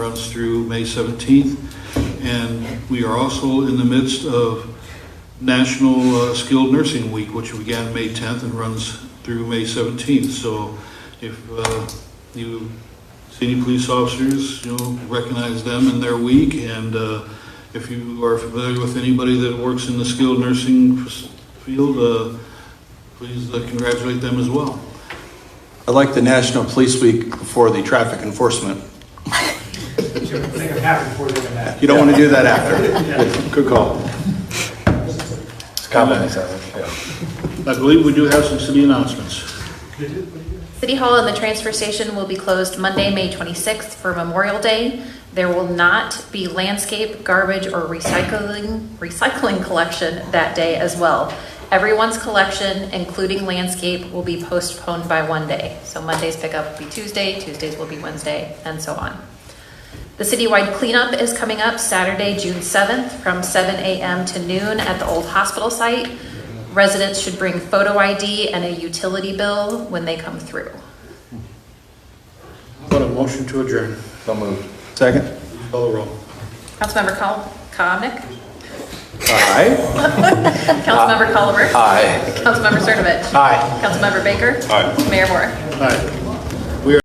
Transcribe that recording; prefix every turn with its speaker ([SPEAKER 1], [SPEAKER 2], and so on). [SPEAKER 1] runs through May 17th. And we are also in the midst of National uh, Skilled Nursing Week, which began May 10th and runs through May 17th. So if uh, you see any police officers, you know, recognize them in their week. And uh, if you are familiar with anybody that works in the skilled nursing f- field, uh, please uh, congratulate them as well.
[SPEAKER 2] I like the National Police Week for the traffic enforcement.
[SPEAKER 3] Think of happy before you come back.
[SPEAKER 2] You don't want to do that after. Good call.
[SPEAKER 4] It's compromised, I think, yeah.
[SPEAKER 1] I believe we do have some city announcements.
[SPEAKER 5] City Hall and the transfer station will be closed Monday, May 26th for Memorial Day. There will not be landscape, garbage, or recycling, recycling collection that day as well. Everyone's collection, including landscape, will be postponed by one day. So Monday's pickup will be Tuesday, Tuesdays will be Wednesday, and so on. The citywide cleanup is coming up Saturday, June 7th, from 7 a.m. to noon at the old hospital site. Residents should bring photo ID and a utility bill when they come through.
[SPEAKER 1] What a motion to adjourn.
[SPEAKER 4] So moved.
[SPEAKER 2] Second?
[SPEAKER 1] Call the roll.
[SPEAKER 5] Councilmember Col- Comnic,
[SPEAKER 2] Aye.
[SPEAKER 5] Councilmember Culliver,
[SPEAKER 4] Aye.
[SPEAKER 5] Councilmember Cernovich.
[SPEAKER 2] Aye.
[SPEAKER 5] Councilmember Baker. Mayor Moore.
[SPEAKER 1] Aye.